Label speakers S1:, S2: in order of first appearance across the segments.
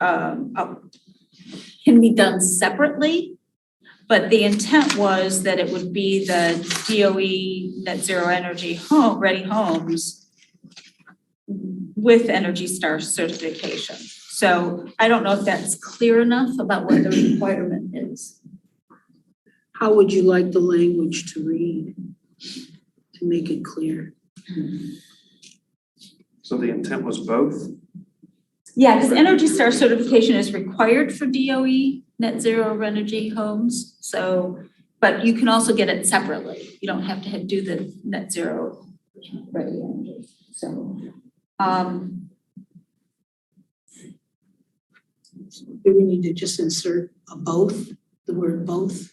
S1: um, up- can be done separately. But the intent was that it would be the DOE net zero energy home, ready homes with Energy Star certification. So I don't know if that's clear enough about what the requirement is.
S2: How would you like the language to read? To make it clear?
S3: So the intent was both?
S1: Yeah, because Energy Star certification is required for DOE net zero energy homes, so, but you can also get it separately. You don't have to do the net zero ready energy, so. Um,
S2: Do we need to just insert a both, the word both?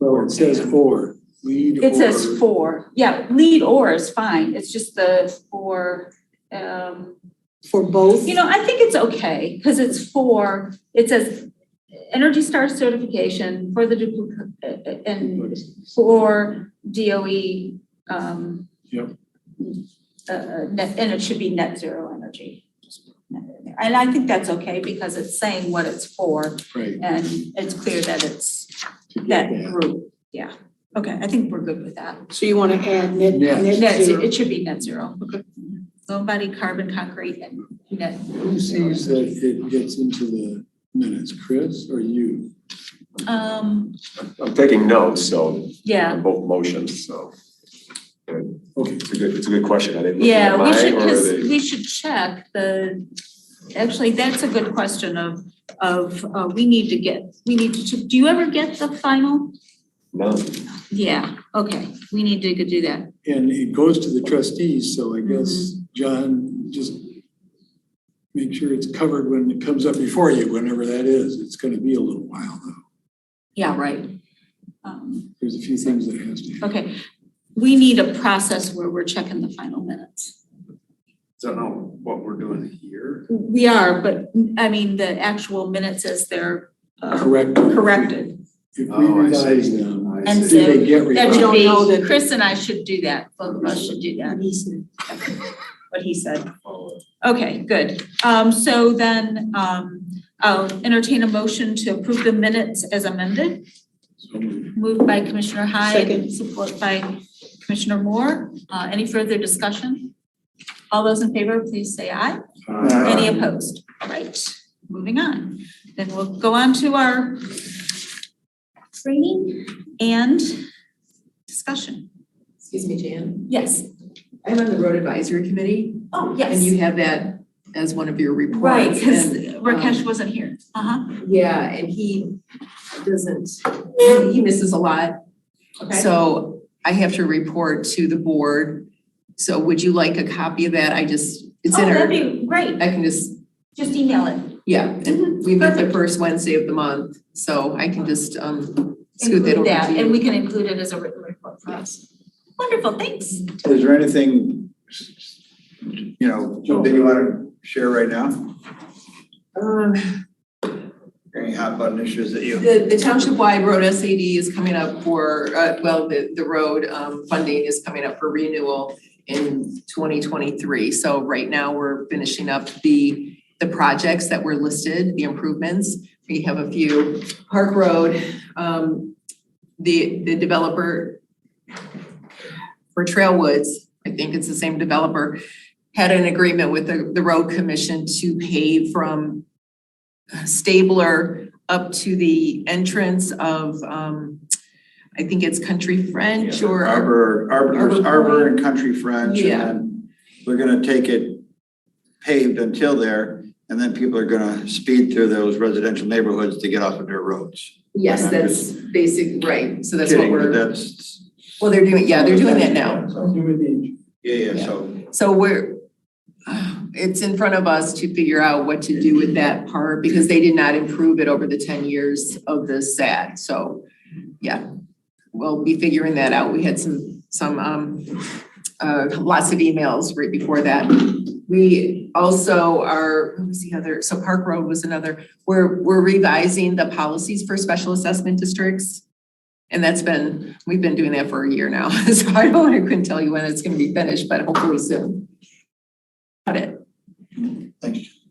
S4: Well, it says or, lead or.
S1: it says four, yeah, lead or is fine, it's just the four, um,
S2: For both?
S1: You know, I think it's okay, because it's for, it says Energy Star certification for the duplicate, and for DOE, um.
S4: Yep.
S1: uh, Uh, net, and it should be net zero energy. And I think that's okay, because it's saying what it's for,
S4: Right,
S1: and it's clear that it's
S4: to get
S1: that
S4: that.
S1: group, yeah. Okay, I think we're good with that.
S2: So you wanna add net,
S4: Net.
S2: net
S1: Net, ze-
S2: zero?
S1: it should be net zero. Okay. Nobody carbon concrete and net,
S4: Who sees that it gets into the minutes, Chris or you?
S1: um,
S5: I'm taking notes, so,
S1: yeah.
S5: on both motions, so.
S4: Okay,
S5: It's a good, it's a good question. I didn't look
S1: Yeah,
S5: at
S1: we
S5: mine
S1: should,
S5: or
S1: because
S5: the-
S1: we should check the, actually, that's a good question of, of, uh, we need to get, we need to, do you ever get the final?
S5: No,
S1: Yeah, okay, we need to go do that.
S4: and it goes to the trustees, so I
S1: Mm-hmm.
S4: guess, John, just make sure it's covered when it comes up before you, whenever that is. It's gonna be a little while though.
S1: Yeah, right. Um,
S4: There's a few things that has to happen.
S1: okay, we need a process where we're checking the final minutes.
S3: Don't know what we're doing here.
S1: We are, but, I mean, the actual minutes as they're uh,
S4: Correct.
S1: corrected.
S4: If we
S3: Oh, I see.
S4: revise them,
S3: I
S1: And
S4: do
S3: see.
S1: so-
S4: they get
S1: That
S4: revised?
S1: should
S2: don't know
S1: be,
S2: that-
S1: Chris and I should do that, both of us should do that,
S2: Easement.
S1: what he said. Okay, good. Um, so then, um, I'll entertain a motion to approve the minutes as amended.
S4: So moved.
S1: Moved by Commissioner Hyde
S2: Second.
S1: and support by Commissioner Moore. Uh, any further discussion? All those in favor, please say aye. Any opposed? All right, moving on. Then we'll go on to our training and discussion.
S6: Excuse me, Jan.
S1: Yes.
S6: I'm on the road advisory committee
S1: Oh,
S6: and you have that as one of your reports.
S1: Right, because
S6: and, um,
S1: Rakesh wasn't here. Uh-huh.
S6: Yeah, and he doesn't, he misses a lot. So I have to report to the board. So would you like a copy of that? I just, it's
S1: Oh,
S6: in
S1: that'd
S6: our,
S1: be great.
S6: I can just,
S1: Just email it.
S6: yeah, and we meet the first Wednesday of the month. So I can just, um, scoot
S1: include
S6: that over to you.
S1: that, and we can include it as a written report for us. Wonderful, thanks.
S7: Is there anything, you know, that you want to share right now?
S6: Um,
S7: Any hot button issues that you?
S6: The, the township-wide road SAD is coming up for, uh, well, the, the road, um, funding is coming up for renewal in twenty twenty-three. So right now, we're finishing up the, the projects that were listed, the improvements. We have a few, Park Road, um, the, the developer for Trailwoods, I think it's the same developer, had an agreement with the, the road commission to pave from Stabler up to the entrance of, um, I think it's Country French or.
S7: Arbor, Arbor, there's
S6: Arbor
S7: Arbor and Country French, and
S6: Yeah.
S7: then we're gonna take it paved until there, and then people are gonna speed through those residential neighborhoods to get off of their roads.
S6: Yes, that's basic, right, so that's what
S7: Kidding, but
S6: we're,
S7: That's.
S6: well, they're doing, yeah, they're doing that now.
S7: Yeah, yeah, so.
S6: So we're, uh, it's in front of us to figure out what to do with that part because they did not improve it over the ten years of the SAD, so, yeah. We'll be figuring that out. We had some, some, um, uh, lots of emails right before that. We also are, what was the other, so Park Road was another, we're, we're revising the policies for special assessment districts. And that's been, we've been doing that for a year now, so I don't, I couldn't tell you when it's gonna be finished, but hopefully soon. Got it.
S7: Thanks.